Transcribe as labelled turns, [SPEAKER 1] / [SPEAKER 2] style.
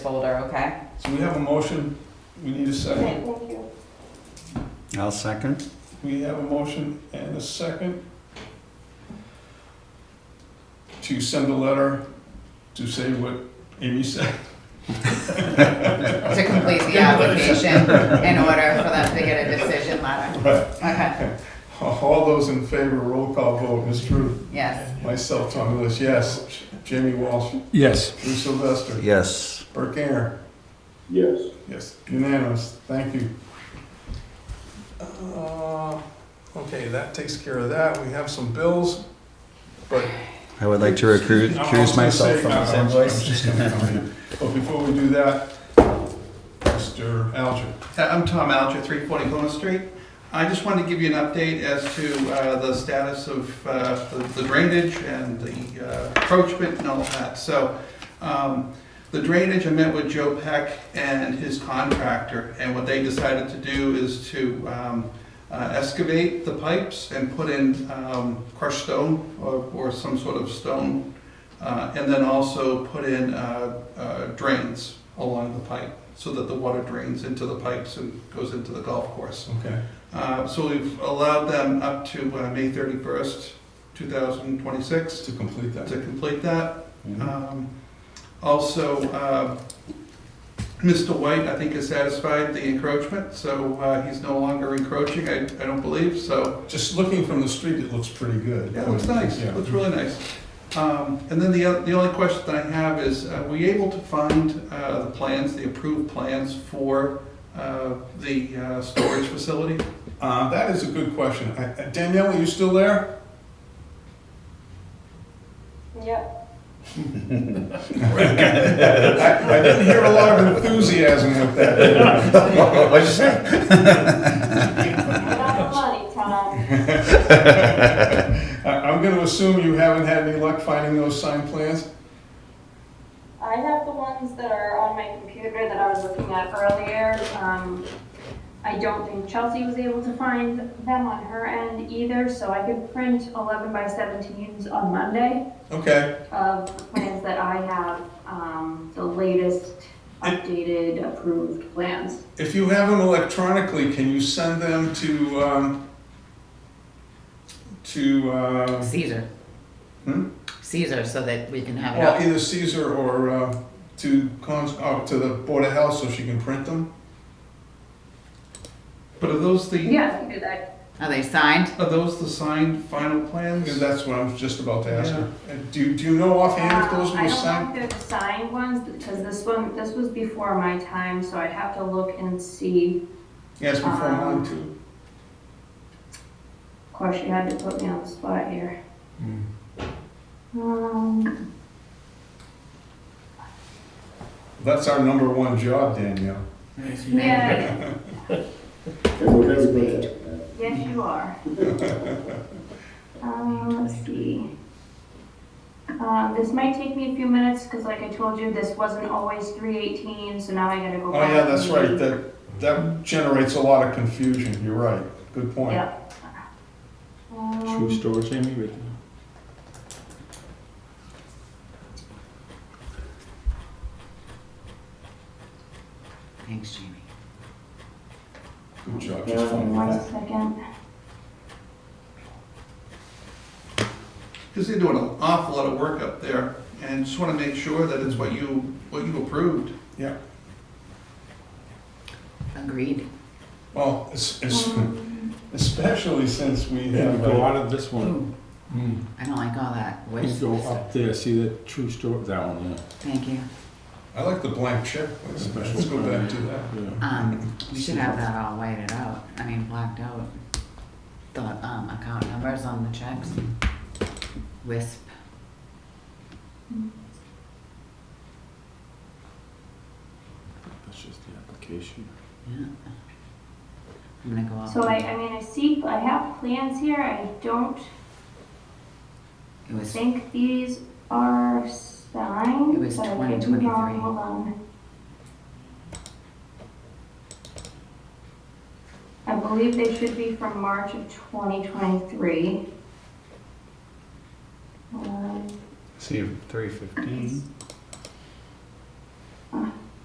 [SPEAKER 1] folder, okay?
[SPEAKER 2] So we have a motion, we need a second.
[SPEAKER 3] I'll second.
[SPEAKER 2] We have a motion and a second to send a letter to say what Amy said.
[SPEAKER 1] To complete the application in order for them to get a decision letter.
[SPEAKER 2] Right.
[SPEAKER 1] Okay,
[SPEAKER 2] All those in favor, roll call vote, Ms. Trude,
[SPEAKER 1] yes.
[SPEAKER 2] myself, Tom Lewis, yes. Jamie Walsh,
[SPEAKER 3] Yes.
[SPEAKER 2] Drew Sylvester,
[SPEAKER 3] Yes.
[SPEAKER 2] Burke Aaron,
[SPEAKER 4] Yes.
[SPEAKER 2] yes, unanimous, thank you. Uh, Okay, that takes care of that, we have some bills, but
[SPEAKER 3] I would like to recruit,
[SPEAKER 2] I'm
[SPEAKER 3] recuse
[SPEAKER 2] also
[SPEAKER 3] myself
[SPEAKER 2] saying-
[SPEAKER 3] from this
[SPEAKER 2] I'm- I'm
[SPEAKER 3] invoice.
[SPEAKER 2] just gonna come in. But before we do that, Mr. Alger,
[SPEAKER 5] Uh, I'm Tom Alger, 340 Glen Street. I just wanted to give you an update as to uh, the status of uh, the- the drainage and the uh, encroachment and all that. So um, the drainage, I met with Joe Peck and his contractor, and what they decided to do is to um, uh, excavate the pipes and put in um, crushed stone or or some sort of stone, uh, and then also put in uh, uh, drains along the pipe so that the water drains into the pipes and goes into the golf course.
[SPEAKER 2] okay.
[SPEAKER 5] Uh, So we've allowed them up to uh, May 31st, 2026
[SPEAKER 2] To complete that.
[SPEAKER 5] to complete that.
[SPEAKER 2] Mhm.
[SPEAKER 5] Um, Also, uh, Mr. White, I think, has satisfied the encroachment, so uh, he's no longer encroaching, I I don't believe, so
[SPEAKER 2] Uh, Just looking from the street, it looks pretty good.
[SPEAKER 5] yeah, it looks nice,
[SPEAKER 2] Yeah.
[SPEAKER 5] It looks really nice. Um, And then the, oth- the only question that I have is, uh, were you able to find uh, the plans, the approved plans for uh, the uh, storage facility?
[SPEAKER 2] Uh, that is a good question. I- I- Danielle, are you still there?
[SPEAKER 6] Yep.
[SPEAKER 2] I, I didn't hear a lot of enthusiasm with that.
[SPEAKER 3] What'd you say?
[SPEAKER 6] Not the money, Tom.
[SPEAKER 2] I, I'm gonna assume you haven't had any luck finding those signed plans?
[SPEAKER 6] I have the ones that are on my computer that I was looking at earlier. Um, I don't think Chelsea was able to find them on her end either, so I could print 11 by 17s on Monday
[SPEAKER 2] Okay,
[SPEAKER 6] of plans that I have, um, the latest updated approved plans.
[SPEAKER 2] if you have them electronically, can you send them to, um, to, uh,
[SPEAKER 1] Caesar.
[SPEAKER 2] Hmm?
[SPEAKER 1] Caesar, so that we can have it
[SPEAKER 2] Well,
[SPEAKER 1] up.
[SPEAKER 2] either Caesar or uh, to cons, oh, to the Board of Health so she can print them.
[SPEAKER 5] But are those the,
[SPEAKER 6] Yeah, I can do that.
[SPEAKER 1] Are they signed?
[SPEAKER 5] are those the signed final plans?
[SPEAKER 2] Because that's what I was just about to ask her. And do, do you know offhand if those
[SPEAKER 6] Um, I
[SPEAKER 2] were
[SPEAKER 6] don't
[SPEAKER 2] signed?
[SPEAKER 6] know if they're the signed ones, because this one, this was before my time, so I'd have to look and see
[SPEAKER 2] Yes, before mine
[SPEAKER 6] Um,
[SPEAKER 2] too.
[SPEAKER 6] Of course, you had to put me on the spot here. Um,
[SPEAKER 2] That's our number one job, Danielle.
[SPEAKER 6] yeah,
[SPEAKER 4] And we're very good at that.
[SPEAKER 6] yes, you are. Um, let's see. Um, this might take me a few minutes, because like I told you, this wasn't always three eighteen, so now I gotta go
[SPEAKER 2] Oh,
[SPEAKER 6] back.
[SPEAKER 2] yeah, that's
[SPEAKER 6] and-
[SPEAKER 2] right. That, that generates a lot of confusion. You're right. Good point.
[SPEAKER 6] Yep. Um,
[SPEAKER 3] story, Jamie.
[SPEAKER 1] Thanks, Jamie.
[SPEAKER 2] Good job. Just phone me
[SPEAKER 6] One
[SPEAKER 2] back.
[SPEAKER 6] second.
[SPEAKER 5] Because they're doing an awful lot of work up there, and just want to make sure that it's what you, what you approved.
[SPEAKER 2] Yeah.
[SPEAKER 1] Agreed.
[SPEAKER 2] Well, it's, it's,
[SPEAKER 6] Um,
[SPEAKER 2] especially since we
[SPEAKER 7] Yeah,
[SPEAKER 2] have,
[SPEAKER 7] go
[SPEAKER 2] uh,
[SPEAKER 7] out of this one.
[SPEAKER 1] Ooh,
[SPEAKER 7] Mm.
[SPEAKER 1] I don't like all that
[SPEAKER 7] You
[SPEAKER 1] wish
[SPEAKER 7] go
[SPEAKER 1] stuff.
[SPEAKER 7] up there, see the true story, that one,
[SPEAKER 1] Thank you.
[SPEAKER 2] I like the blank check. Let's let's go back to that.
[SPEAKER 7] yeah. yeah.
[SPEAKER 1] Um, we should have that all whited out, I mean, blacked out. The, um, account numbers on the checks. Wisp.
[SPEAKER 7] That's just the application.
[SPEAKER 1] Yeah. I'm gonna go up.
[SPEAKER 6] Um, So I, I mean, I see, I have plans here, I don't
[SPEAKER 1] It was
[SPEAKER 6] think these are signed.
[SPEAKER 1] It was
[SPEAKER 6] but I could be
[SPEAKER 1] 2023.
[SPEAKER 6] wrong. Hold on. I believe they should be from March of 2023. Um,
[SPEAKER 3] See, three fifteen.